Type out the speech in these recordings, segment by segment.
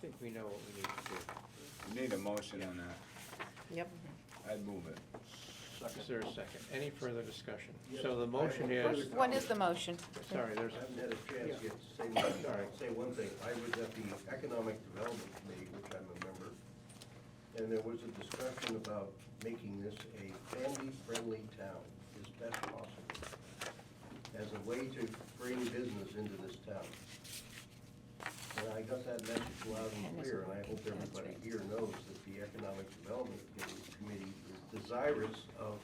think we know what we need to do. We need a motion on that. Yep. I'd move it. Is there a second? Any further discussion? Yes. So the motion is, What is the motion? sorry, there's, I haven't had a chance yet to say, one- say one thing. I was at the Economic Development Committee, which I'm a member, and there was a discussion about making this a family-friendly town as best possible, as a way to bring business into this town. And I got that message loud and clear, and I hope everybody here knows that the Economic Development Committee is desirous of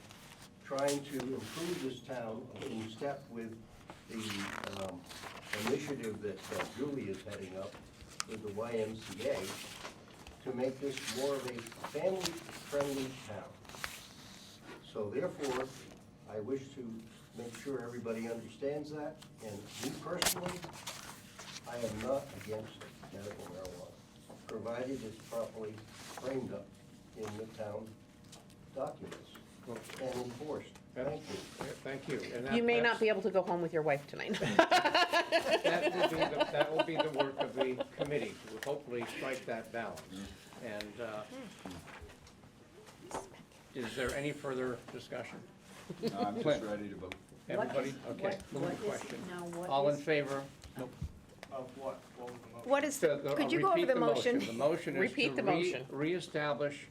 trying to improve this town in step with the um, initiative that uh, Julie is heading up with the YMCA to make this more of a family-friendly town. So therefore, I wish to make sure everybody understands that, and me personally, I am not against medical marijuana, provided it's properly framed up in the town documents well, and enforced. Thank you. yeah, thank you. And that- You may that's- not be able to go home with your wife tonight. That will be, the- that will be the work of the committee, to hopefully strike that balance. And uh, is there any further discussion? No, I'm just ready to vote. Everybody, okay, move the question. All in favor? Nope. What is, So the- uh, could you go over repeat the motion? The motion is Repeat to the re- motion. reestablish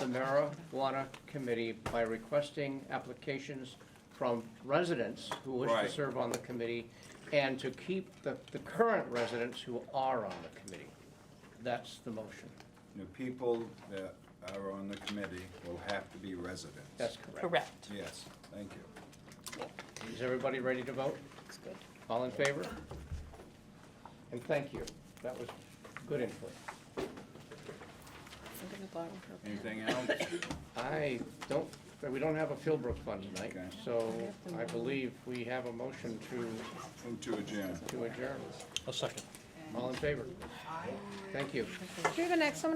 the marijuana committee by requesting applications from residents who wish to Right. serve on the committee and to keep the, the current residents who are on the committee. That's the motion. The people that are on the committee will have to be residents. That's correct. Correct. Yes, thank you. Is everybody ready to vote? Looks good. All in favor? And thank you. That was good input. I'm gonna borrow her pen. Anything else? I don't, we don't have a Philbrook fund tonight, Okay. so I believe we have a motion to Move to adjourn. to adjourn. A second. All in favor? Thank you. You're the next one.